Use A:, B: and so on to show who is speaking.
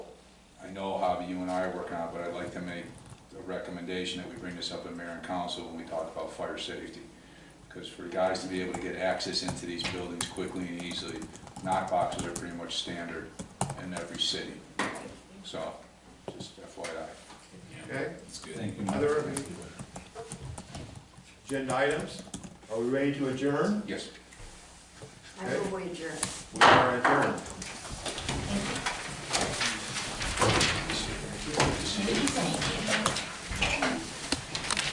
A: I know, Javi, you and I are working on, it, but I'd like to make a recommendation that we bring this up in mayor and council when we talk about fire safety. Because for guys to be able to get access into these buildings quickly and easily, knock boxes are pretty much standard in every city. So, just FYI.
B: Okay,
C: That's good.
D: Thank you.
B: other agenda items? Are we ready to adjourn?
A: Yes.
E: I will wager.
B: We are adjourned.